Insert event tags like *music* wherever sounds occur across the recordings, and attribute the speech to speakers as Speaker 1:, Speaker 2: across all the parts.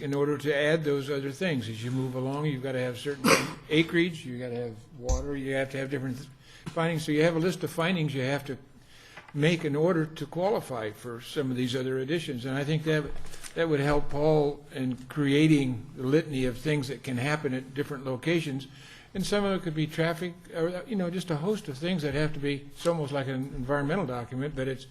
Speaker 1: in order to add those other things. As you move along, you've got to have certain *coughs* acreage, you've got to have water, you have to have different findings. So you have a list of findings you have to make in order to qualify for some of these other additions. And I think that, that would help Paul in creating the litany of things that can happen at different locations. And some of it could be traffic, or, you know, just a host of things that have to be, it's almost like an environmental document, but it's,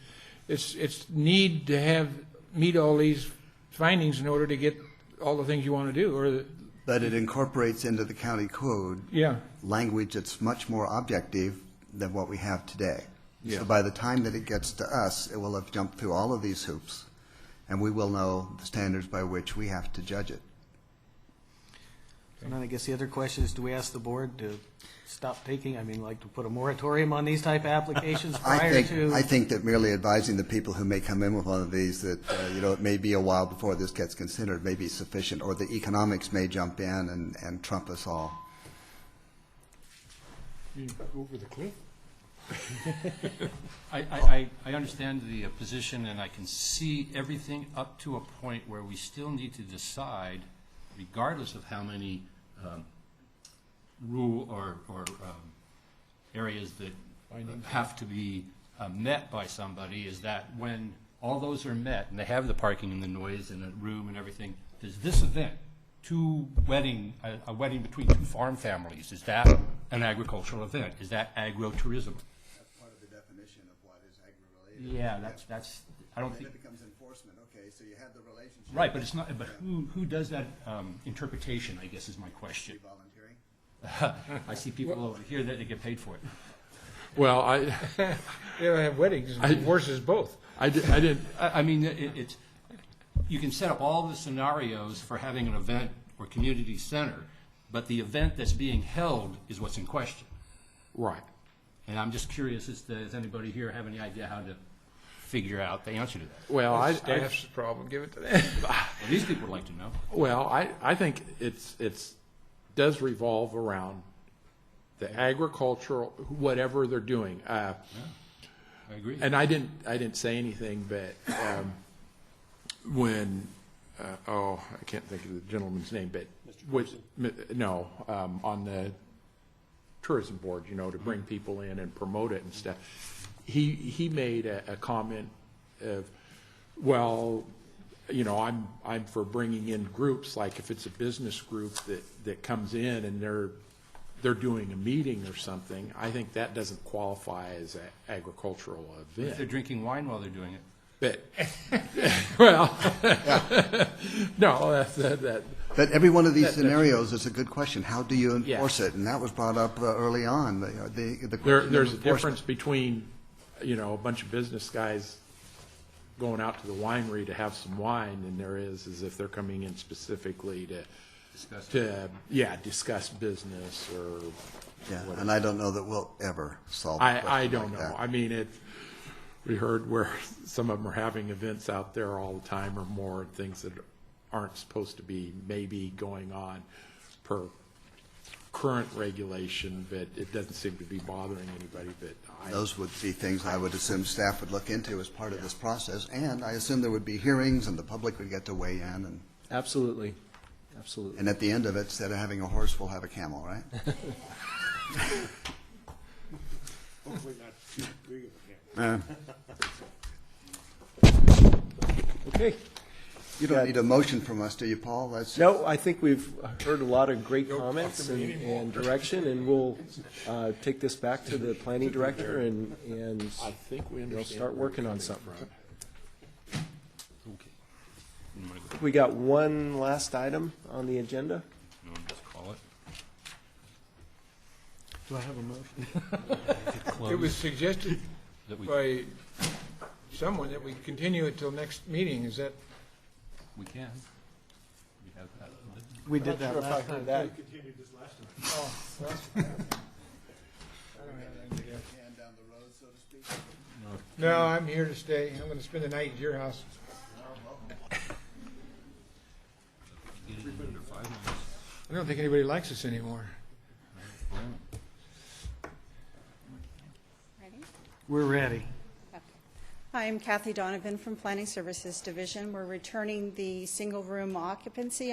Speaker 1: it's, it's need to have, meet all these findings in order to get all the things you want to do, or, the-
Speaker 2: But it incorporates into the county code
Speaker 1: yeah,
Speaker 2: language that's much more objective than what we have today.
Speaker 3: Yeah.
Speaker 2: So by the time that it gets to us, it will have jumped through all of these hoops, and we will know the standards by which we have to judge it.
Speaker 4: And then I guess the other question is, do we ask the board to stop taking, I mean, like, to put a moratorium on these type of applications
Speaker 2: I
Speaker 4: prior
Speaker 2: think, I
Speaker 4: to?
Speaker 2: think that merely advising the people who may come in with one of these that, uh, you know, it may be a while before this gets considered may be sufficient, or the economics may jump in and, and trump us all.
Speaker 1: over the cliff.
Speaker 5: I, I, I I understand the uh, position, and I can see everything up to a point where we still need to decide, regardless of how many um, rule or, or um, areas that have to be uh, met by somebody, is that when all those are met, and they have the parking and the noise and the room and everything, there's this event, two wedding, a- a wedding between two farm families, is that an agricultural event? Is that agro-tourism?
Speaker 2: That's part of the definition of what is agri-related.
Speaker 5: Yeah, that's, that's, I don't think,
Speaker 2: becomes enforcement, okay, so you have the relationship.
Speaker 5: right, but it's not, but who, who does that um, interpretation, I guess is my question.
Speaker 2: Volunteering?
Speaker 5: I see people over here that they get paid for it.
Speaker 3: Well, I,
Speaker 1: They don't have weddings,
Speaker 3: I-
Speaker 1: divorces, both.
Speaker 3: I di- I didn't,
Speaker 5: I, I mean, it, it's, you can set up all the scenarios for having an event or community center, but the event that's being held is what's in question.
Speaker 3: right.
Speaker 5: And I'm just curious, as to, does anybody here have any idea how to figure out the answer to that?
Speaker 3: Well, I, I,
Speaker 1: Staff's problem, give it to them.
Speaker 5: Well, These people would like to know.
Speaker 3: well, I, I think it's, it's, does revolve around the agricultural, whatever they're doing. Uh,
Speaker 5: I agree.
Speaker 3: And I didn't, I didn't say anything, but um, when, uh, oh, I can't think of the gentleman's name, but was, m- no, um, on the tourism board, you know, to bring people in and promote it and stuff. He, he made a, a comment of, well, you know, I'm, I'm for bringing in groups, like if it's a business group that, that comes in and they're, they're doing a meeting or something, I think that doesn't qualify as an agricultural
Speaker 5: If they're
Speaker 3: event.
Speaker 5: drinking wine while they're doing it.
Speaker 3: But,
Speaker 5: *laughs*
Speaker 3: well, no, that's, that, that-
Speaker 2: But every one of these scenarios is a good question. How do you
Speaker 3: Yeah.
Speaker 2: enforce it? And that was brought up uh, early on, the- uh, the, the
Speaker 3: there,
Speaker 2: question of
Speaker 3: there's a
Speaker 2: enforcement.
Speaker 3: difference between, you know, a bunch of business guys going out to the winery to have some wine than there is, is if they're coming in specifically to,
Speaker 5: Discuss it.
Speaker 3: to, yeah, discuss business or
Speaker 2: Yeah, and I don't know that we'll ever solve a question
Speaker 3: I, I don't
Speaker 2: like that.
Speaker 3: know. I mean, it, we heard where *laughs* some of them are having events out there all the time or more, and things that aren't supposed to be maybe going on per current regulation, but it doesn't seem to be bothering anybody, but I,
Speaker 2: Those would be things I would assume staff would look into as part of this process, and I assume there would be hearings, and the public would get to weigh in, and,
Speaker 6: Absolutely, absolutely.
Speaker 2: and at the end of it, instead of having a horse, we'll have a camel, right?
Speaker 6: Okay.
Speaker 2: You don't need a motion from us, do you, Paul? That's
Speaker 6: No, I think we've heard a lot of great comments and, and direction, and we'll, uh, take this back to the planning director and, and
Speaker 3: I think we
Speaker 6: they'll
Speaker 3: understand.
Speaker 6: start
Speaker 3: where
Speaker 6: working
Speaker 3: you're
Speaker 6: on
Speaker 3: coming
Speaker 6: something.
Speaker 3: from.
Speaker 5: Okay. You wanna go-
Speaker 6: We got one last item on the agenda.
Speaker 5: you wanna just call it?
Speaker 4: Do I have a motion?
Speaker 1: It was suggested
Speaker 5: That we,
Speaker 1: by someone that we continue it till next meeting, is that?
Speaker 5: we can. We have that.
Speaker 4: We did that last time.
Speaker 6: that.
Speaker 1: No, I'm here to stay, I'm gonna spend the night at your house.
Speaker 5: Get it in under five minutes.
Speaker 1: I don't think anybody likes us anymore.
Speaker 7: Ready?
Speaker 4: We're ready.
Speaker 7: Okay. Uh, I'm Kathy Donovan from Planning Services Division. We're returning the single-room occupancy